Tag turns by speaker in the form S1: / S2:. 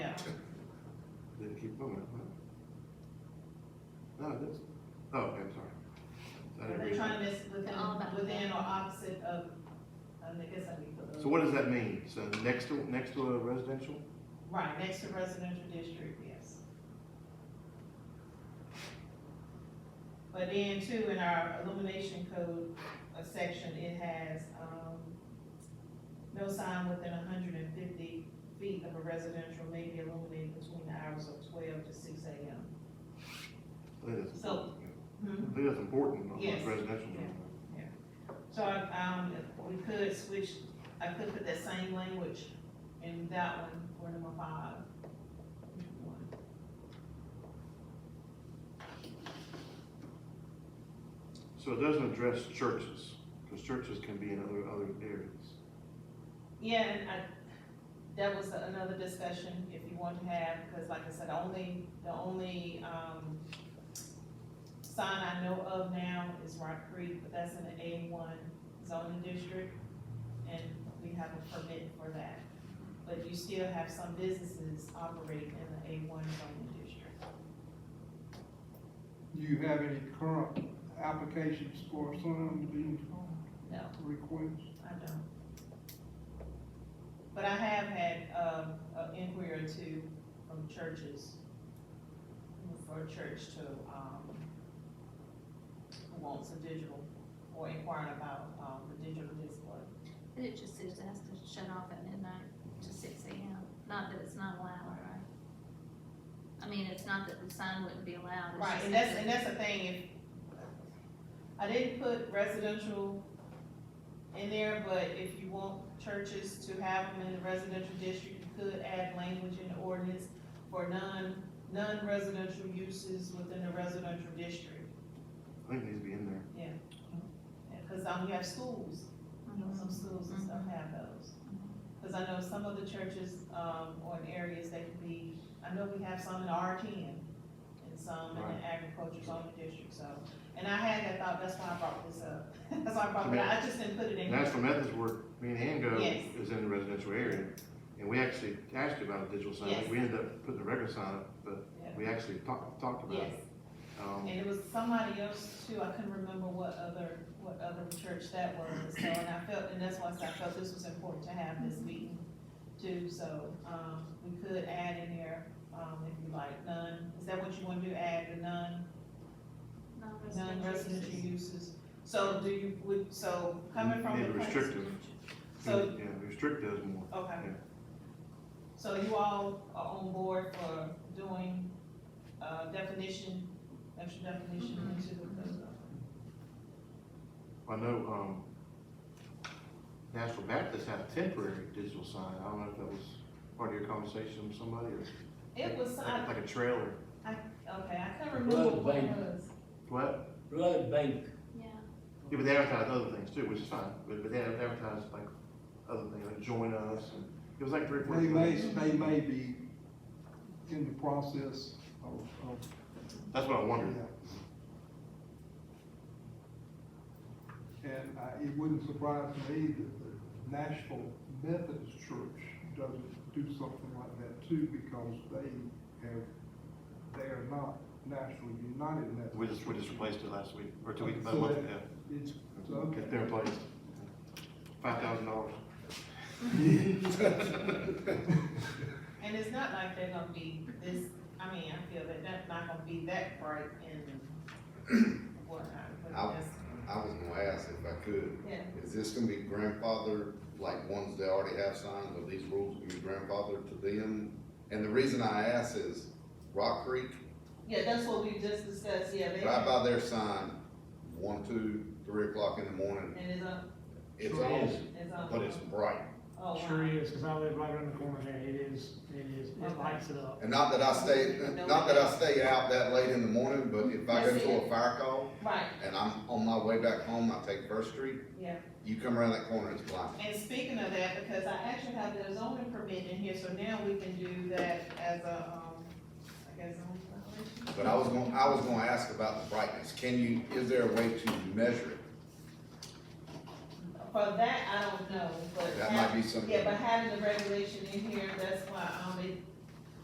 S1: Oh, wait, no. No, it is. Oh, okay, I'm sorry. I didn't read that.
S2: Electronic is within,
S3: All about
S2: within
S3: that.
S2: or opposite of, I guess I need to.
S1: So what does that mean? So next to, next to a residential?
S2: Right, next to residential district, yes. But then too, in our illumination code uh, section, it has, um, no sign within hundred and fifty feet of a residential may be illuminated between the hours of twelve to six AM.
S1: That is
S2: So- mm-hmm.
S1: important.
S3: Mm-hmm.
S1: That is important on
S2: Yes.
S1: residential.
S2: Yeah. So, um, we could switch, I could put that same language in that one for number five.
S1: So it doesn't address churches, because churches can be in other, other areas.
S2: Yeah, and I, that was another discussion if you want to have, because like I said, the only, the only, um, sign I know of now is Rock Creek, but that's in the A one zoning district, and we have a permit for that. But you still have some businesses operating in the A one zoning district.
S4: Do you have any current applications for some of these
S2: No.
S4: requests?
S2: I don't. But I have had, um, an inquiry or two from churches, for a church to, um, who wants a digital, or inquiring about, um, the digital display.
S3: And it just says it has to shut off at midnight to six AM, not that it's not allowed, right? I mean, it's not that the sign wouldn't be allowed. it's
S2: Right,
S3: just
S2: and that's,
S3: that-
S2: and that's the thing, if, I didn't put residential in there, but if you want churches to have them in the residential district, you could add language in the ordinance for non, non-residential uses within the residential district.
S1: I think it needs to be in there.
S2: Yeah, Cause, um, we have schools, you know, some schools and stuff have those. Cause I know some of the churches, um, or in areas they can be, I know we have some in R ten and some in
S1: Right.
S2: the agriculture zoning district, so. And I had that thought, that's why I brought this up. That's why I brought it up. I just didn't put it in. here.
S1: National Methodist work, me and Ann go,
S2: Yes.
S1: is in the residential area. And we actually asked you about a digital sign.
S2: Yes.
S1: We ended up putting a regular sign up, but
S2: Yeah.
S1: we actually talked, talked about
S2: Yes,
S1: it. Um,
S2: and it was somebody else too, I couldn't remember what other, what other church that was, so, and I felt, and that's why I said I felt this was important to have this meeting too, so, um, we could add in there, um, if you like, none, is that what you wanna do, add the none?
S3: Non-residential
S2: non-residential
S3: uses.
S2: uses. So do you, would, so coming from
S1: Need
S2: the.
S1: to
S2: place-
S1: restrict it.
S2: So,
S1: Yeah, restrict those more.
S2: okay.
S1: Yeah.
S2: So you all are on board for doing, uh, definition, extra definition
S3: Mhm.
S2: into the code?
S1: I know, um, National Baptist had a temporary digital sign. I don't know if that was part of your conversation with somebody or.
S2: It was, I,
S1: Like like a trailer.
S2: okay, I couldn't remember what it
S5: Right.
S2: was.
S1: What?
S5: Blood bank.
S3: Yeah,
S1: Yeah, but they advertised other things too, which is fine. But, but they advertised like other things, like join us and it was like three or four.
S4: They may,
S1: things.
S4: they may be in the process of, of,
S1: That's what I wondered.
S4: yeah. And I, it wouldn't surprise me that the National Methodist Church doesn't do something like that too, because they have, they are not National United Methodist.
S1: We just, we just replaced it last week, or two weeks, about a
S4: So
S1: month
S4: that-
S1: ago.
S4: It's, so, okay.
S1: If they're replaced, five thousand dollars.
S2: And it's not like they're gonna be this, I mean, I feel that that's not gonna be that bright in whatnot, but
S6: I'll-
S2: that's,
S6: I was gonna ask if I could,
S2: yeah.
S6: is this gonna be grandfathered, like ones that already have signs, are these rules gonna be grandfathered to them? And the reason I ask is Rock Creek,
S2: Yeah, that's what we just discussed, yeah, they,
S6: right
S2: and
S6: by their sign, one, two, three o'clock in the morning,
S2: it's on,
S6: it's
S7: Sure
S6: on,
S7: is.
S2: it's on.
S6: but it's bright.
S2: Oh, wow.
S7: Sure is, cause I live right around the corner there, it is, it is, it lights it up.
S6: And not that I stay, not that I stay out that late in the morning, but if I go to a fire call
S2: Right,
S6: and I'm on my way back home, I take First Street,
S2: yeah.
S6: you come around that corner, it's blind.
S2: And speaking of that, because I actually have the zoning permit in here, so now we can do that as a, um, I guess, zoning violation.
S6: But I was gonna, I was gonna ask about the brightness, can you, is there a way to measure it?
S2: For that, I don't know, but.
S6: That
S2: having-
S6: might be something.
S2: Yeah, but having the regulation in here, that's why, um, it,